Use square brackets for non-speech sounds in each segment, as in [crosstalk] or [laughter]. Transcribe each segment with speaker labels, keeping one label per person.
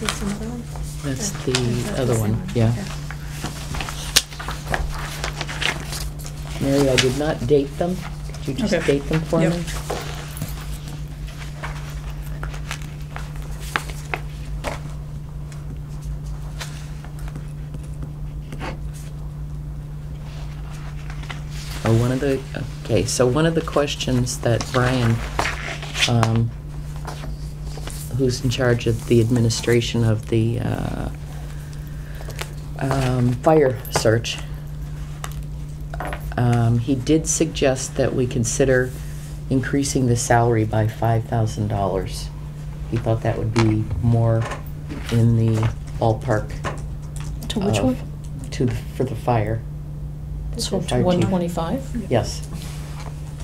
Speaker 1: this another one?
Speaker 2: That's
Speaker 1: Or-
Speaker 2: the
Speaker 1: or is that
Speaker 2: other
Speaker 1: same
Speaker 2: one, yeah.
Speaker 1: Okay.
Speaker 2: Mary, I did not date them. Could you just
Speaker 3: Okay.
Speaker 2: date them for
Speaker 3: Yep.
Speaker 2: me? Oh, one of the, okay, so one of the questions that Brian, um, who's in charge of the administration of the uh, um, fire search, um, he did suggest that we consider increasing the salary by $5,000. He thought that would be more in the ballpark.
Speaker 4: To which
Speaker 2: of-
Speaker 4: one?
Speaker 2: To, the- for the fire,
Speaker 1: This
Speaker 4: So
Speaker 1: is
Speaker 2: to
Speaker 4: to
Speaker 2: Fire
Speaker 4: one
Speaker 2: chief.
Speaker 4: twenty-five?
Speaker 2: yes.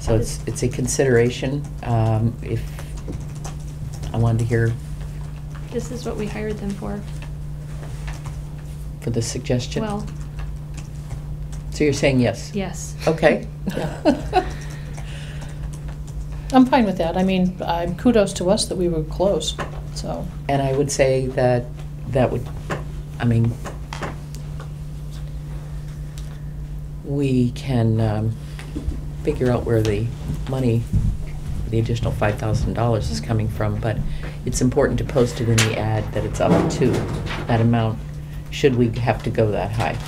Speaker 2: So it's, it's a consideration. um, If, I wanted to hear
Speaker 1: This is what we hired them for.
Speaker 2: for the suggestion.
Speaker 1: Well,
Speaker 2: So you're saying yes?
Speaker 1: yes. [laughs]
Speaker 2: Okay.
Speaker 4: [laughs] Yeah. I'm fine with that. I mean, i kudos to us that we were close, so.
Speaker 2: And I would say that that would, I mean, we can um, figure out where the money, the additional five thousand dollars is coming from, but it's important to post it in the ad that it's up to that amount, should we have to go that high.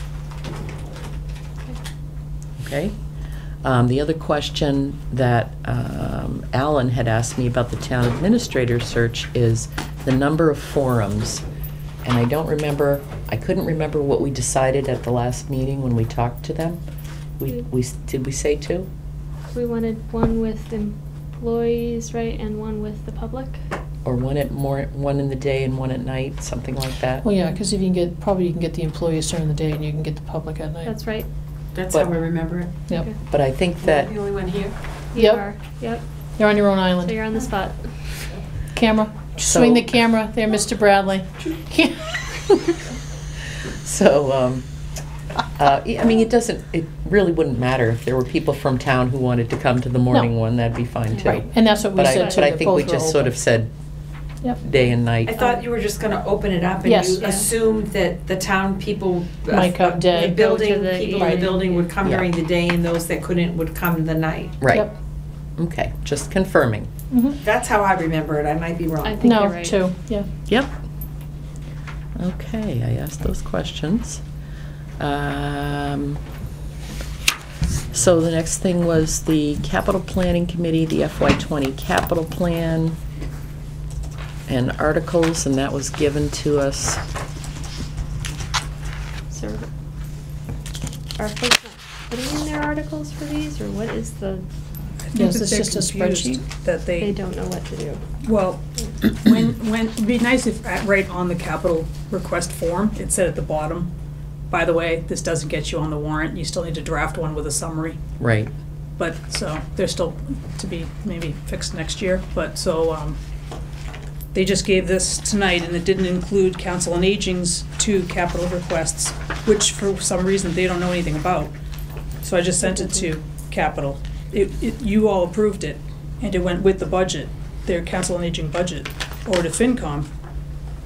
Speaker 2: Okay? Um, The other question that um, Alan had asked me about the town administrator search is the number of forums. And I don't remember, I couldn't remember what we decided at the last meeting when we talked to them. We,
Speaker 4: Hmm.
Speaker 2: we, did we say two?
Speaker 1: We wanted one with employees, right, and one with the public?
Speaker 2: Or one at more, one in the day and one at night, something like that?
Speaker 4: Well, yeah, because if you can get, probably you can get the employees during the day and you can get the public at night.
Speaker 1: That's right.
Speaker 5: That's
Speaker 2: But-
Speaker 5: how I remember it.
Speaker 4: Yep.
Speaker 1: Okay.
Speaker 2: But I think that,
Speaker 5: You're the only one here.
Speaker 1: You
Speaker 4: Yep.
Speaker 1: are, yep.
Speaker 4: You're on your own
Speaker 1: So you're
Speaker 4: island.
Speaker 1: on the spot.
Speaker 4: Camera,
Speaker 2: So-
Speaker 4: swing the camera there,
Speaker 2: [laughs]
Speaker 4: Mr. Bradley.
Speaker 2: so, um, uh, I mean, it doesn't, it really wouldn't matter if there were people from town who wanted to come to the morning
Speaker 4: No.
Speaker 2: one, that'd be fine too.
Speaker 4: Right, and that's what we
Speaker 2: But I,
Speaker 4: said too,
Speaker 2: but I
Speaker 4: that
Speaker 2: think we
Speaker 4: both
Speaker 2: just sort
Speaker 4: were
Speaker 2: of said
Speaker 4: Yep.
Speaker 2: day and night.
Speaker 5: I thought you were just gonna open it up and
Speaker 4: Yes.
Speaker 5: you assumed that the town people. uh,
Speaker 4: Might come day.
Speaker 5: The
Speaker 1: Go
Speaker 5: building,
Speaker 1: to the
Speaker 5: people in the
Speaker 4: evening.
Speaker 5: building would come
Speaker 2: Yeah.
Speaker 5: during the day and those that couldn't would come the night.
Speaker 2: Right,
Speaker 4: Yep.
Speaker 2: okay, just confirming.
Speaker 4: Mhm.
Speaker 5: That's how I remember it, I might be
Speaker 1: I
Speaker 5: wrong.
Speaker 1: think you're
Speaker 4: No,
Speaker 1: right.
Speaker 4: two, yeah.
Speaker 2: Yep. Okay, I asked those questions. Um, So the next thing was the capital planning committee, the FY twenty capital plan and articles, and that was given to us.
Speaker 1: So are folks not putting in their articles for these, or what is the,
Speaker 6: I think
Speaker 4: Yes,
Speaker 6: that
Speaker 4: it's
Speaker 6: they're
Speaker 4: just a
Speaker 6: confused That
Speaker 1: they
Speaker 6: they,
Speaker 1: don't know what to do?
Speaker 6: well, when, when, it'd be nice if, at- right on the capital request form, it said at the bottom, by the way, this doesn't get you on the warrant, you still need to draft one with a summary.
Speaker 2: Right,
Speaker 6: But, so, they're still to be maybe fixed next year, but, so, um, they just gave this tonight, and it didn't include council and aging's two capital requests, which for some reason they don't know anything about. So I just sent it to capital. It, it, you all approved it, and it went with the budget, their council and aging budget, or to FinCom.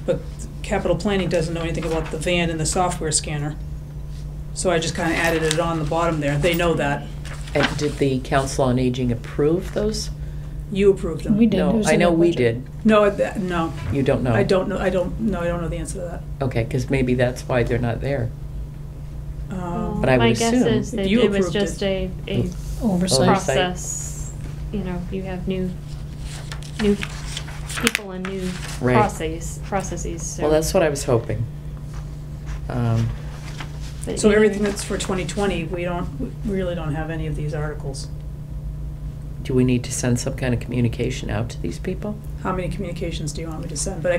Speaker 6: But capital planning doesn't know anything about the van and the software scanner. So I just kinda added it on the bottom there. They know that.
Speaker 2: and did the council on aging approve those?
Speaker 6: You approved them.
Speaker 4: We did. it
Speaker 2: No,
Speaker 4: was
Speaker 2: I
Speaker 4: in
Speaker 2: know
Speaker 4: their
Speaker 2: we did,
Speaker 4: budget.
Speaker 6: No, I- that- no.
Speaker 2: you don't know.
Speaker 6: I don't know, I don't, no, I don't know the answer to
Speaker 2: Okay, because maybe that's why they're not there.
Speaker 6: that. Um,
Speaker 2: But I would
Speaker 1: My
Speaker 2: assume
Speaker 1: guess is
Speaker 6: if
Speaker 1: that
Speaker 6: you
Speaker 1: it was
Speaker 6: approved it-
Speaker 1: just a, a
Speaker 2: Oversight.
Speaker 4: Oversight.
Speaker 1: process, you know, you have new, new people and new
Speaker 2: Right.
Speaker 1: processes, processes, so.
Speaker 2: Well, that's what I was hoping. Um,
Speaker 1: but
Speaker 6: So
Speaker 1: either-
Speaker 6: everything that's for 2020, we don't, we really don't have any of these articles.
Speaker 2: Do we need to send some kind of communication out to these people?
Speaker 6: How many communications do you want me to send? But I